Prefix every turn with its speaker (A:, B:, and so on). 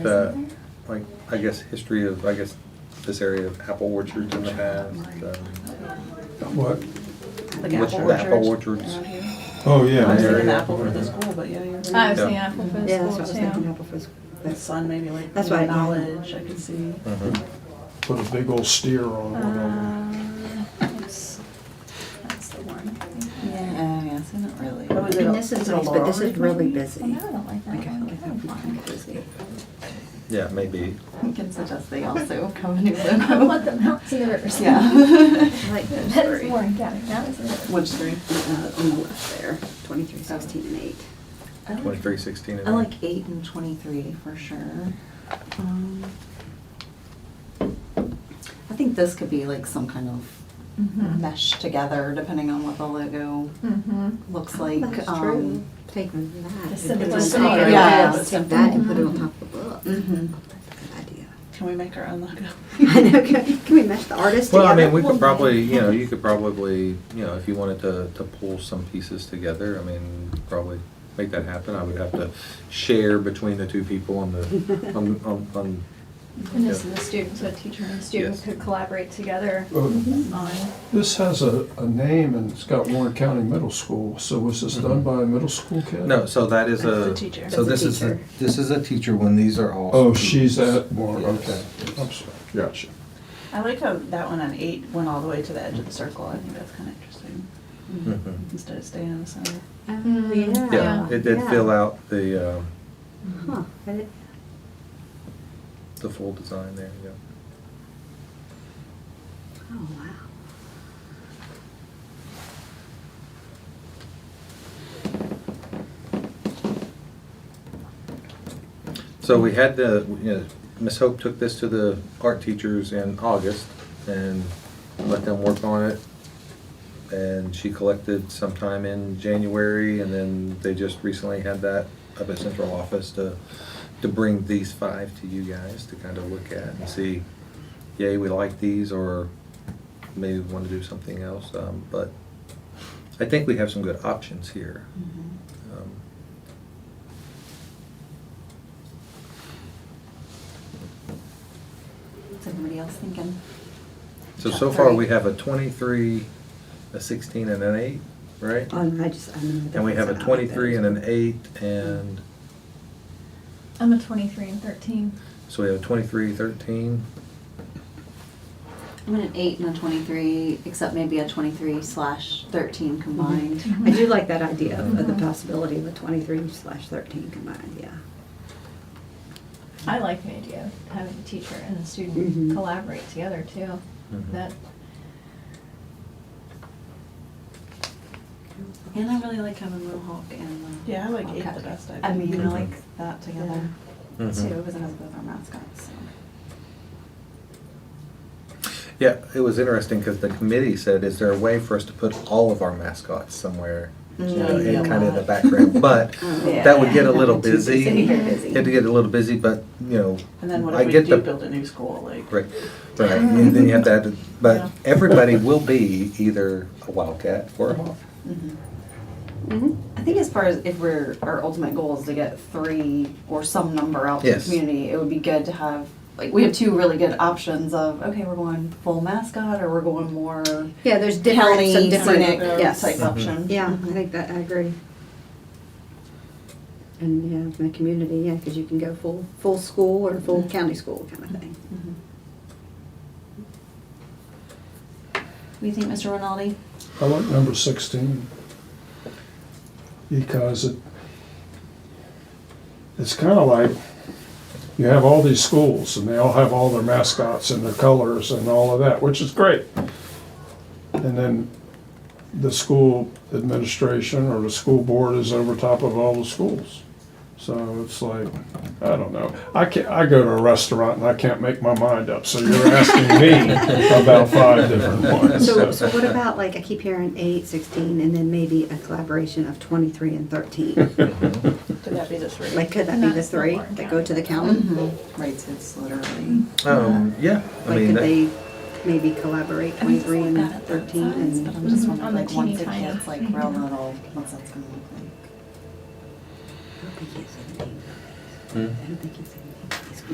A: the, like, I guess, history of, I guess, this area of apple orchards in the past.
B: What?
C: Like
A: What's
C: apple
A: your apple
C: orchards.
A: orchards?
C: around here.
B: Oh, yeah.
C: I was thinking
B: yeah,
C: apple for
B: yeah.
C: the school, but yeah, you're right.
D: I
A: Yeah.
D: was thinking apple for
E: Yeah,
D: the
E: that's what I
D: school
E: was thinking,
D: too.
E: apple for
C: The sun maybe like.
E: That's
C: you know,
E: what I mean.
C: Knowledge, I could see.
A: Mm-hmm.
B: Put a big old steer on one of them.
D: Uh, oops. That's the one.
C: Yeah, yeah, it's not really.
E: And this is nice, but this is really
D: Well,
E: busy.
D: no, I don't like that
E: Okay,
D: one.
E: like that would be kind of busy.
A: Yeah, maybe.
C: You can suggest they also come and do
D: I want the
C: them.
D: mountains and the rivers.
C: Yeah.
E: I like those
D: That is
E: three.
D: Warren County, that is it.
C: Which three?
E: Uh, On the left there, twenty-three, sixteen, and eight.
A: Twenty-three sixteen and.
C: I like eight and twenty-three for sure. Um, I think this could be like some kind of
D: Mhm.
C: mesh together, depending on what the logo
D: Mhm.
C: looks like.
E: That's
C: um,
E: true. Take that.
D: The
E: and put it on
D: simplicity
E: top
C: of
E: of
C: it. Yeah.
E: that. Take that and put it on top of the book. That's
C: Mhm.
E: a good idea.
C: Can we make our own logo?
E: I know, can can we mesh the artists
A: Well,
E: together?
A: I mean, we could probably, you know, you could probably, you know, if you wanted to, to pull some pieces together, I mean, probably make that happen. I would have to share between the two people on the, on, on, on,
D: And this is the student, so a teacher and student
A: Yes.
D: could collaborate together
B: Uh,
C: On.
B: This has a, a name and it's got Warren County Middle School, so was this done by a middle school kid?
A: no, so that is
C: That's the
A: a,
C: teacher.
A: so
E: That's
A: this
E: a
A: is, the-
E: teacher.
A: this is a teacher when these are all.
B: Oh, she's
A: students.
B: at Warren, okay.
A: Yes.
B: I'm sorry, gotcha.
C: I like how that one on eight went all the way to the edge of the circle. I think that's kind of interesting.
A: Mhm.
C: Instead of staying in the center.
E: Oh, Yeah.
A: Yeah, it did
E: yeah.
A: fill out the, um,
E: Huh, Oh, I didn't-
A: the full design there, yeah.
E: oh, wow.
A: So we had the, you know, Ms. Hope took this to the art teachers in August and let them work on it. And she collected sometime in January, and then they just recently had that up at central office to, to bring these five to you guys to kind of look at and see, yay, we like these, or maybe we want to do something else. Um, But I think we have some good options here. Um,
C: What's everybody else thinking?
A: So,
C: Top
A: so far,
C: three.
A: we have a 23, a 16, and an 8, right?
E: Oh, no, I just, I remember. the
A: And we have a
E: ones that I like
A: 23 and
E: better.
A: an 8, and,
D: I'm a 23 and 13.
A: so we have a 23, 13.
C: I'm in an eight and a twenty-three, except maybe a twenty-three slash thirteen combined.
E: I do like that idea of
A: Mm-hmm.
E: of the possibility of a twenty-three slash thirteen combined, yeah.
D: I like the idea of having a teacher and a student
E: Mhm.
D: collaborate together too.
A: Mhm.
D: That,
C: And I really like having Mohawk and the.
F: Yeah, I like eight the
C: Bobcat.
F: best, I
C: I mean, I
A: Mhm.
C: like that together too,
A: Mhm.
C: because it has both our mascots, so.
A: Yeah, it was interesting because the committee said, is there a way for us to put all of our mascots somewhere? You know,
C: Mm,
A: in
C: yeah.
A: kind of the background, but
C: Mm.
E: Yeah.
A: that would get a
C: Um, Yeah.
A: little
C: Too
A: busy.
C: busy. Very
A: It
C: busy.
A: had to get a little busy, but, you know.
F: And then what
A: I
F: if we
A: get
F: do
A: the-
F: build a new school, like?
A: Right, right, and then you have to add, but everybody will be either a Wildcat or a Hawk.
C: Mm-hmm.
E: Mm-hmm.
C: I think as far as if we're, our ultimate goal is to get three or some number out to the
A: Yes.
C: community, it would be good to have, like, we have two really good options of, okay, we're going full mascot or we're going more
E: Yeah, there's different,
C: county
E: some different,
C: scenic
E: yes.
A: Mm-hmm.
C: type option. Mm-hmm.
E: Yeah, I think that, I agree. And, yeah, in the community, yeah, because you can go full, full school or full county school kind of thing.
C: Mhm. What do you think, Mr. Rinaldi?
B: I like number sixteen. Because it, it's kinda like, you have all these schools and they all have all their mascots and their colors and all of that, which is great. And then the school administration or the school board is over top of all the schools. So it's like, I don't know. I can't, I go to a restaurant and I can't make my mind up, so you're asking me about five different ones.
E: So, so what about, like, I keep hearing eight, sixteen, and then maybe a collaboration of twenty-three and thirteen?
F: Could that be the three?
E: Like, could that be the three that go to the county?
C: Mm-hmm.
E: mm-hmm.
C: Right, so Um, it's literally.
A: Um, yeah, I
E: Like,
A: mean.
E: could
A: that-
E: they maybe collaborate twenty-three and thirteen
C: But
E: and?
C: I'm just
D: Mhm.
C: wondering,
D: On the
C: like, once
D: teeny
C: it
D: tiny.
C: gets like real little, what's that's gonna look like?
E: I don't think it's seventeen.
A: Hmm?
E: I don't think it's seventeen.